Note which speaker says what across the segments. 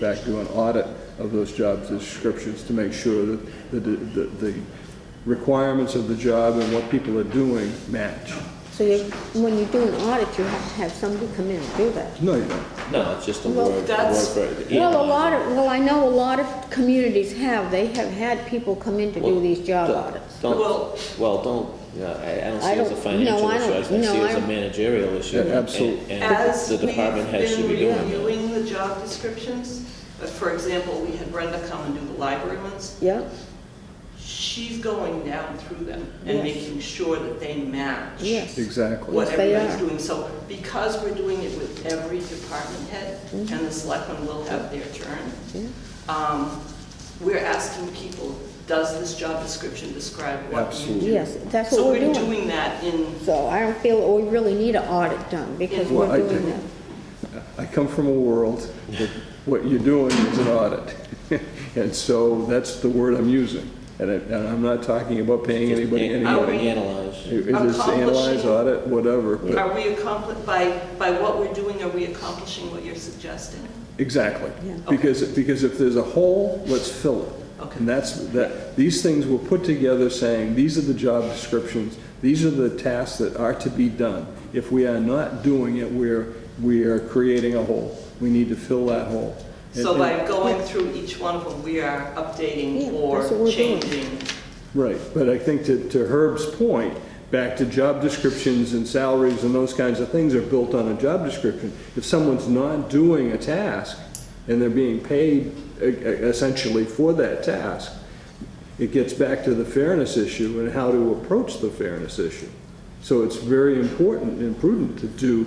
Speaker 1: back do an audit of those job descriptions to make sure that the, the, the requirements of the job and what people are doing match.
Speaker 2: So you, when you do an audit, you have to have somebody come in and do that.
Speaker 1: No, you don't.
Speaker 3: No, it's just a
Speaker 2: Well,
Speaker 3: word.
Speaker 4: that's-
Speaker 3: word for it.
Speaker 2: Well, a lot of, well, I know a lot of communities have, they have had people come in to do
Speaker 3: Well,
Speaker 2: these job
Speaker 3: don't-
Speaker 2: audits.
Speaker 3: Don't,
Speaker 4: Well-
Speaker 3: well, don't, yeah, I, I don't see
Speaker 2: I
Speaker 3: it as
Speaker 2: don't-
Speaker 3: a
Speaker 2: no,
Speaker 3: financial
Speaker 2: I
Speaker 3: issue, I
Speaker 2: don't-
Speaker 3: see
Speaker 2: no,
Speaker 3: it as a
Speaker 2: I-
Speaker 3: managerial issue.
Speaker 1: Yeah,
Speaker 3: and-
Speaker 1: absolutely.
Speaker 3: And
Speaker 4: As
Speaker 3: the
Speaker 4: we've
Speaker 3: department head should be doing
Speaker 4: been
Speaker 3: that.
Speaker 4: reviewing the job descriptions, uh, for example, we had Brenda come and do the library ones,
Speaker 2: Yeah,
Speaker 4: she's going down through them and
Speaker 2: Yes.
Speaker 4: making sure that they match
Speaker 2: yes.
Speaker 1: Exactly.
Speaker 4: what
Speaker 2: Yes, they
Speaker 4: everybody's
Speaker 2: are.
Speaker 4: doing. So because we're doing it with every department head, and
Speaker 2: Mm-hmm.
Speaker 4: the selectmen will have their turn, um, we're asking people, does this job description describe what you
Speaker 1: Absolutely.
Speaker 4: do?
Speaker 2: Yes, that's what we're
Speaker 4: So we're
Speaker 2: doing.
Speaker 4: doing that in,
Speaker 2: So I don't feel that we really need an audit done because
Speaker 1: Well, I
Speaker 2: we're doing
Speaker 1: do.
Speaker 2: that.
Speaker 1: I come from a world that what you're doing is an audit. And so that's the word I'm using. And, I, and I'm not talking about paying anybody any
Speaker 4: Are
Speaker 1: money.
Speaker 4: we-
Speaker 3: Analyze.
Speaker 1: It it is analyze, audit, whatever, but,
Speaker 4: are we accompli, by, by what we're doing, are we accomplishing what you're suggesting?
Speaker 1: exactly.
Speaker 2: Yeah.
Speaker 1: Because, because if there's a hole, let's fill it.
Speaker 4: Okay.
Speaker 1: And that's, that, these things were put together saying, these are the job descriptions, these are the tasks that are to be done. If we are not doing it, we're, we are creating a hole. We need to fill that hole. And-
Speaker 4: So
Speaker 1: and-
Speaker 4: by going through each one of them, we are updating
Speaker 2: Yeah,
Speaker 4: or
Speaker 2: that's what we're doing.
Speaker 4: changing.
Speaker 1: Right, but I think to, to Herb's point, back to job descriptions and salaries and those kinds of things are built on a job description. If someone's not doing a task and they're being paid e- e- essentially for that task, it gets back to the fairness issue and how to approach the fairness issue. So it's very important and prudent to do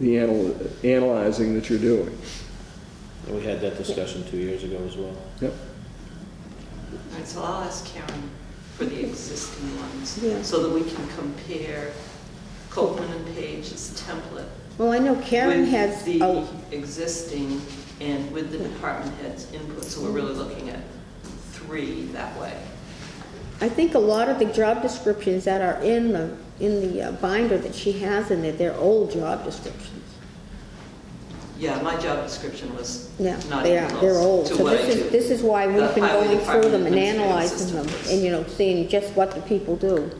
Speaker 1: the anal- analyzing that you're doing.
Speaker 3: And we had that discussion two years ago as well.
Speaker 1: Yep.
Speaker 4: All right, so I'll ask Karen for the existing
Speaker 2: Yeah.
Speaker 4: ones, so that we can compare Copeland and Page's template
Speaker 2: Well, I know Karen has,
Speaker 4: with the
Speaker 2: oh,
Speaker 4: existing and with the department head's input, so we're really looking at three that way.
Speaker 2: I think a lot of the job descriptions that are in the, in the uh, binder that she has in there, they're old job descriptions.
Speaker 4: Yeah, my job description was
Speaker 2: Yeah,
Speaker 4: not
Speaker 2: they
Speaker 4: even
Speaker 2: are, they're old.
Speaker 4: close to
Speaker 2: So
Speaker 4: what I
Speaker 2: this
Speaker 4: do.
Speaker 2: is, this is why we've
Speaker 4: The
Speaker 2: been
Speaker 4: highway
Speaker 2: going through
Speaker 4: department
Speaker 2: them and
Speaker 4: administrative
Speaker 2: analyzing them,
Speaker 4: assistant was-
Speaker 2: and, you know, seeing just what the people do.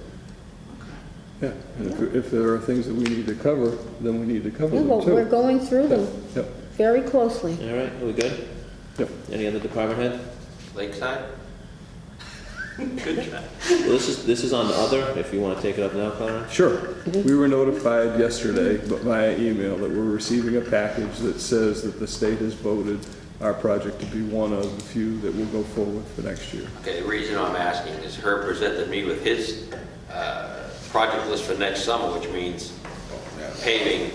Speaker 1: Yeah, and if, if there are things that we need to cover, then we need to cover
Speaker 2: Yeah,
Speaker 1: them
Speaker 2: but
Speaker 1: too.
Speaker 2: we're going through them
Speaker 1: Yep,
Speaker 2: very closely.
Speaker 3: All right, are we good?
Speaker 1: yep.
Speaker 3: Any other department head?
Speaker 5: Lakeside?
Speaker 4: Good job.
Speaker 3: Well, this is, this is on the other, if you wanna take it up now, Clarence.
Speaker 1: Sure. We were notified yesterday bu- via email that we're receiving a package that says that the state has voted our project to be one of the few that will go forward for next year.
Speaker 5: Okay, the reason I'm asking is Herb presented me with his uh, project list for next summer, which means paving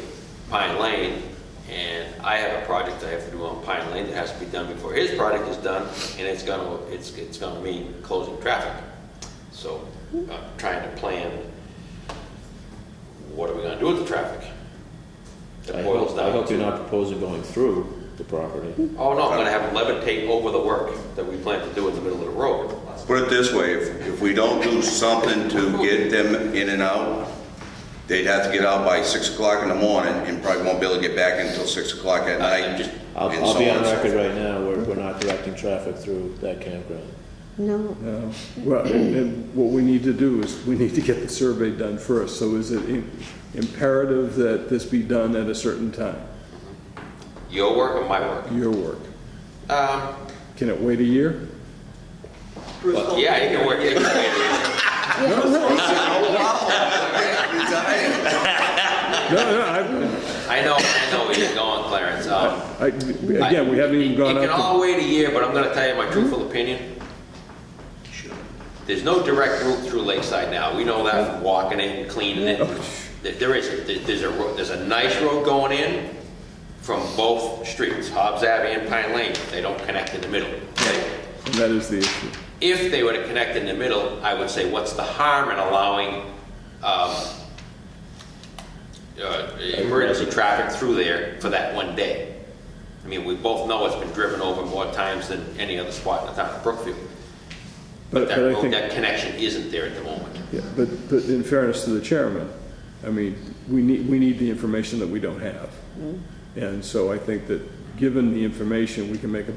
Speaker 5: Pine Lane, and I have a project I have to do on Pine Lane that has to be done before his project is done, and it's gonna, it's, it's gonna mean closing traffic. So I'm trying to plan, what are we gonna do with the traffic?
Speaker 3: I
Speaker 5: That boils
Speaker 3: hope, I
Speaker 5: down
Speaker 3: hope
Speaker 5: to-
Speaker 3: you're not proposing going through the property.
Speaker 5: Oh, no, I'm gonna have them levitate over the work that we plan to do in the middle of the road.
Speaker 6: Put it this way, if, if we don't do something to get them in and out, they'd have to get out by six o'clock in the morning and probably won't be able to get back until six o'clock at night.
Speaker 5: just-
Speaker 3: I'll,
Speaker 6: and
Speaker 3: I'll
Speaker 6: so
Speaker 3: be on
Speaker 6: and so
Speaker 3: record right now, we're, we're not directing traffic through that campground.
Speaker 2: No,
Speaker 1: Uh, Well, and- and what we need to do is, we need to get the survey done first, so is it im- imperative that this be done at a certain time?
Speaker 5: Your work or my work?
Speaker 1: Your work.
Speaker 5: Um,
Speaker 1: Can it wait a year?
Speaker 4: Bruce won't be
Speaker 5: yeah, it can
Speaker 4: here.
Speaker 5: work. It can
Speaker 1: No, no, I,
Speaker 5: wait. I know, I know where you're going, Clarence. Um,
Speaker 1: I, again, we haven't even gone
Speaker 5: It
Speaker 1: out
Speaker 5: can
Speaker 1: to
Speaker 5: all wait a year, but I'm gonna tell you my truthful opinion. There's no direct route through Lakeside now. We know that from walking it and cleaning it. There- There isn't. There- There's a, ro- there's a nice road going in from both streets, Hobbs Abbey and Pine Lane. They don't connect in the middle. okay?
Speaker 1: And That is the issue.
Speaker 5: If they were to connect in the middle, I would say, what's the harm in allowing um, uh, emergency traffic through there for that one day? I mean, we both know it's been driven over more times than any other spot in the town of Brookfield.
Speaker 1: But,
Speaker 5: That
Speaker 1: but I
Speaker 5: road,
Speaker 1: think.
Speaker 5: that connection isn't there at the moment.
Speaker 1: Yeah, but, but in fairness to the chairman, I mean, we need, we need the information that we don't have. And so I think that given the information, we can make a